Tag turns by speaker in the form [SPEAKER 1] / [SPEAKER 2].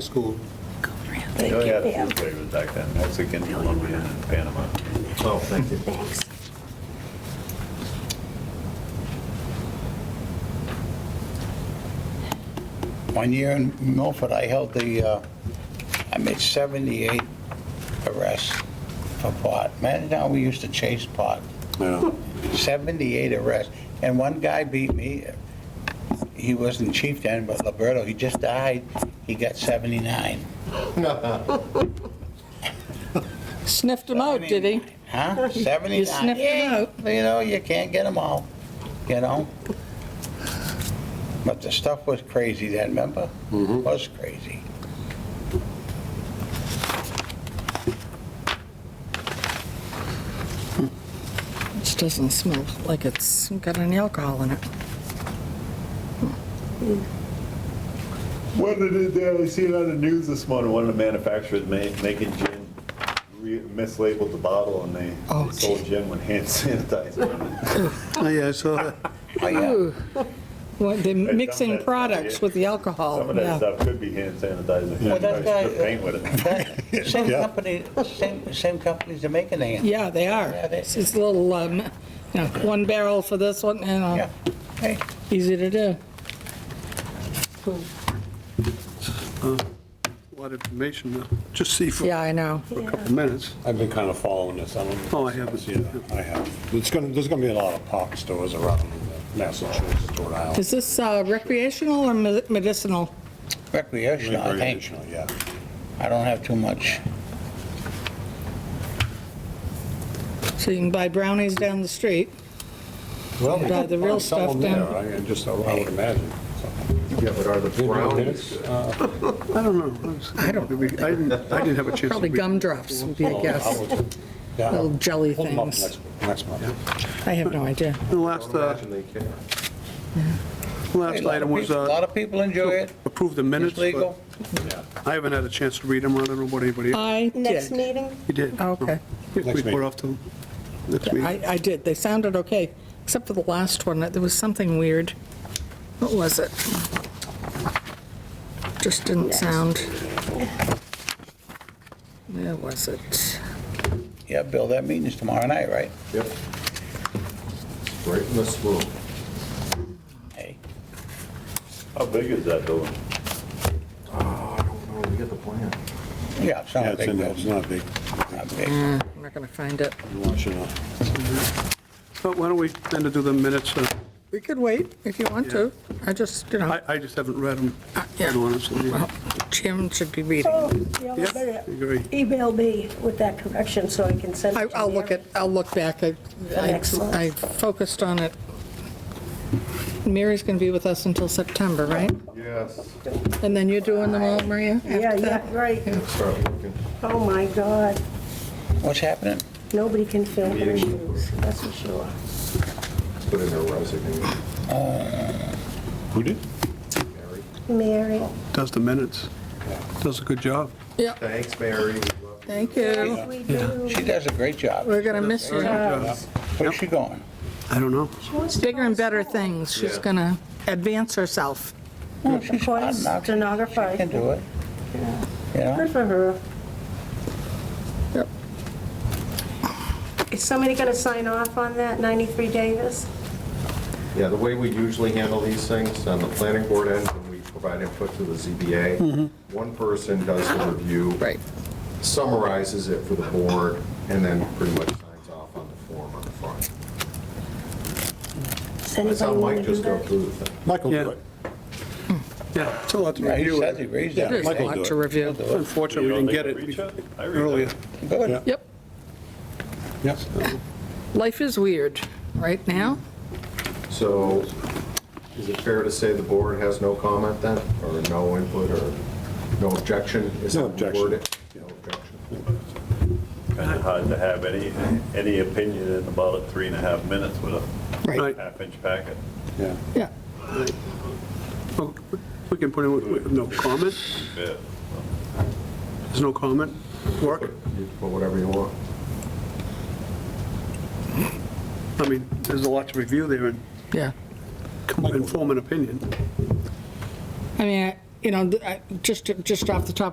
[SPEAKER 1] School.
[SPEAKER 2] They
[SPEAKER 3] They
[SPEAKER 4] Oh,
[SPEAKER 3] only had
[SPEAKER 2] give
[SPEAKER 3] Oh, food flavors back then, Mexican, Colombian, and Panama.
[SPEAKER 1] Oh, thank you.
[SPEAKER 2] them- Thanks.
[SPEAKER 4] One year in Milford, I held the, uh, I made 78 arrests for pot. Man, now we used to chase pot. 78 arrests. And one guy beat me. He wasn't chief then, but Liberto, he just died. He got 79.
[SPEAKER 5] Sniffed him out, Oh, did he?
[SPEAKER 4] Huh? 79.
[SPEAKER 5] You sniffed him out.
[SPEAKER 4] You know, you can't get them all, you know? But the stuff was crazy then, remember? Was crazy.
[SPEAKER 5] Which doesn't smell like it's got any alcohol in it.
[SPEAKER 3] What did it, do? I see it on the news this morning, one of the manufacturers ma- making gin, re- mislabeled the bottle, and they
[SPEAKER 5] Oh,
[SPEAKER 3] they sold gin with hand sanitizer. in it.
[SPEAKER 1] Oh, yeah, I saw that.
[SPEAKER 4] Oh, yeah.
[SPEAKER 5] Well, they're
[SPEAKER 3] dump
[SPEAKER 5] mixing
[SPEAKER 3] that-
[SPEAKER 5] products with the alcohol,
[SPEAKER 3] Some of that
[SPEAKER 5] Oh, yeah.
[SPEAKER 3] stuff could be hand sanitizer.
[SPEAKER 4] Well,
[SPEAKER 3] You
[SPEAKER 4] that
[SPEAKER 3] probably spray
[SPEAKER 4] guy-
[SPEAKER 3] paint with it.
[SPEAKER 4] That- Same
[SPEAKER 1] Yeah.
[SPEAKER 4] company, same, same companies are making the hand.
[SPEAKER 5] Yeah, they are.
[SPEAKER 4] Yeah, they-
[SPEAKER 5] It's just little, um, you know, one barrel for this one, and uh,
[SPEAKER 4] Yeah. Hey,
[SPEAKER 5] easy to do.
[SPEAKER 1] A lot of information to just see for a
[SPEAKER 5] Yeah, I know.
[SPEAKER 1] couple minutes.
[SPEAKER 6] I've been kind of following this. I don't.
[SPEAKER 1] Oh, I haven't.
[SPEAKER 6] Yeah, I have. It's gonna, there's gonna be a lot of pop stores around Massachusetts, Rhode Island.
[SPEAKER 5] Is this uh, recreational or me- medicinal?
[SPEAKER 4] recreational, I think.
[SPEAKER 6] Recreational, yeah.
[SPEAKER 4] I don't have too much.
[SPEAKER 5] So you can buy brownies down the street.
[SPEAKER 6] Well,
[SPEAKER 5] Yeah, the real stuff down-
[SPEAKER 6] I I just, I would imagine.
[SPEAKER 7] Yeah, but are the brownies,
[SPEAKER 1] I don't know. I don't. I didn't, I didn't have a chance. to
[SPEAKER 5] Probably
[SPEAKER 1] read.
[SPEAKER 5] gumdrops would be
[SPEAKER 3] Oh,
[SPEAKER 5] a guess. Little jelly
[SPEAKER 6] Hold them up
[SPEAKER 5] things.
[SPEAKER 6] next, next month.
[SPEAKER 5] I have no idea.
[SPEAKER 1] The last, uh,
[SPEAKER 7] imagine they care.
[SPEAKER 1] last item was
[SPEAKER 4] A lot
[SPEAKER 1] uh,
[SPEAKER 4] of people enjoy it.
[SPEAKER 1] approve the minutes,
[SPEAKER 4] It's legal.
[SPEAKER 1] but I haven't had a chance to read them. I don't know about anybody else
[SPEAKER 5] I
[SPEAKER 2] Next
[SPEAKER 5] did.
[SPEAKER 2] meeting?
[SPEAKER 1] You did.
[SPEAKER 5] Oh, Okay.
[SPEAKER 1] If we
[SPEAKER 6] Next
[SPEAKER 1] put
[SPEAKER 6] meeting.
[SPEAKER 1] off till next meeting.
[SPEAKER 5] I, I did. They sounded okay, except for the last one. There was something weird. What was it? Just didn't sound. Where was it?
[SPEAKER 4] Yeah, Bill, that meeting's tomorrow night, right?
[SPEAKER 7] Yep. Right in this room.
[SPEAKER 4] Hey,
[SPEAKER 3] How big is that building?
[SPEAKER 7] Oh, I don't know, we get the plan.
[SPEAKER 4] yeah, it's not
[SPEAKER 6] Yeah,
[SPEAKER 4] a
[SPEAKER 6] it's
[SPEAKER 4] big
[SPEAKER 6] in there. It's
[SPEAKER 4] deal.
[SPEAKER 6] not big.
[SPEAKER 4] Not big.
[SPEAKER 5] Uh, I'm not going to find it.
[SPEAKER 6] You want you to-
[SPEAKER 1] But why don't we then to do the minutes? uh,
[SPEAKER 5] We could wait if you want to. I just, you know,
[SPEAKER 1] I, I just haven't read them,
[SPEAKER 5] Uh, yeah.
[SPEAKER 1] quite honestly.
[SPEAKER 5] well, Jim should be reading.
[SPEAKER 2] Oh, yeah,
[SPEAKER 1] Yeah,
[SPEAKER 2] I better
[SPEAKER 1] I agree.
[SPEAKER 2] email me with that correction so I can send
[SPEAKER 5] I,
[SPEAKER 2] it to
[SPEAKER 5] I'll look
[SPEAKER 2] Mary.
[SPEAKER 5] at, I'll look back. I, I
[SPEAKER 2] Excellent.
[SPEAKER 5] I focused on it. Mary's going to be with us until September, right?
[SPEAKER 7] Yes.
[SPEAKER 5] And then you're doing them all, Maria? after
[SPEAKER 2] Yeah,
[SPEAKER 5] that?
[SPEAKER 2] yeah, right.
[SPEAKER 7] Start looking.
[SPEAKER 2] Oh, my God.
[SPEAKER 4] What's happening?
[SPEAKER 2] Nobody can fill her
[SPEAKER 7] Meeting.
[SPEAKER 2] shoes, that's for sure.
[SPEAKER 7] Put in her resignation.
[SPEAKER 6] Who did?
[SPEAKER 7] Mary.
[SPEAKER 2] Mary,
[SPEAKER 1] Does the minutes. Does a good job.
[SPEAKER 7] Thanks, Mary. We love you.
[SPEAKER 5] Thank you.
[SPEAKER 2] yes, we do.
[SPEAKER 4] She does a great job.
[SPEAKER 5] We're going to miss you.
[SPEAKER 2] Does.
[SPEAKER 4] Where's she going?
[SPEAKER 1] I don't know.
[SPEAKER 2] She wants to
[SPEAKER 5] bigger
[SPEAKER 2] go
[SPEAKER 5] and
[SPEAKER 2] to
[SPEAKER 5] better
[SPEAKER 2] school.
[SPEAKER 5] things. She's
[SPEAKER 7] Yeah.
[SPEAKER 5] going to advance herself.
[SPEAKER 4] Oh,
[SPEAKER 2] Voice
[SPEAKER 4] she's smart enough. She
[SPEAKER 2] stenographer.
[SPEAKER 4] can do it. You know?
[SPEAKER 2] Good for her.
[SPEAKER 5] Yep.
[SPEAKER 2] Is somebody going to sign off on that, 93 Davis?
[SPEAKER 7] Yeah, the way we usually handle these things, on the planning board end, when we provide input to the ZBA,
[SPEAKER 2] Mm-hmm.
[SPEAKER 7] one person does the review. Summarizes it for the board, and then pretty much signs off on the form on the front.
[SPEAKER 2] Does
[SPEAKER 7] That's how
[SPEAKER 2] anybody want
[SPEAKER 7] Mike
[SPEAKER 2] to do
[SPEAKER 7] just go
[SPEAKER 2] that?
[SPEAKER 7] through the thing.
[SPEAKER 6] Michael
[SPEAKER 1] Yeah. Hmm.
[SPEAKER 6] do it.
[SPEAKER 1] Yeah, it's a lot to
[SPEAKER 4] Yeah, He
[SPEAKER 1] review.
[SPEAKER 4] says he reads
[SPEAKER 6] Yeah.
[SPEAKER 5] There's
[SPEAKER 4] it.
[SPEAKER 5] a
[SPEAKER 6] Michael do
[SPEAKER 5] lot
[SPEAKER 6] it.
[SPEAKER 5] to review.
[SPEAKER 1] Unfortunately, we didn't
[SPEAKER 3] You don't
[SPEAKER 1] get
[SPEAKER 3] think I read
[SPEAKER 1] it
[SPEAKER 3] that? I read
[SPEAKER 1] earlier.
[SPEAKER 3] that.
[SPEAKER 4] Good.
[SPEAKER 5] Yep.
[SPEAKER 6] Yes.
[SPEAKER 5] Life is weird right now.
[SPEAKER 7] So is it fair to say the board has no comment then, or no input, or no objection? Is
[SPEAKER 6] No
[SPEAKER 7] that the
[SPEAKER 6] objection.
[SPEAKER 7] word? No objection.
[SPEAKER 3] Kind of hard to have any, any opinion in about three and a half minutes with a
[SPEAKER 1] Right.
[SPEAKER 3] half-inch packet.
[SPEAKER 6] Yeah.
[SPEAKER 5] Yeah.
[SPEAKER 1] Well, We can put in with- with no comment.
[SPEAKER 3] Yeah.
[SPEAKER 1] There's no comment. Work.
[SPEAKER 7] You can Put whatever you want.
[SPEAKER 1] I mean, there's a lot to review there and
[SPEAKER 5] Yeah.
[SPEAKER 1] come- and form an opinion.
[SPEAKER 5] I mean, I- you know, I- just, just off the top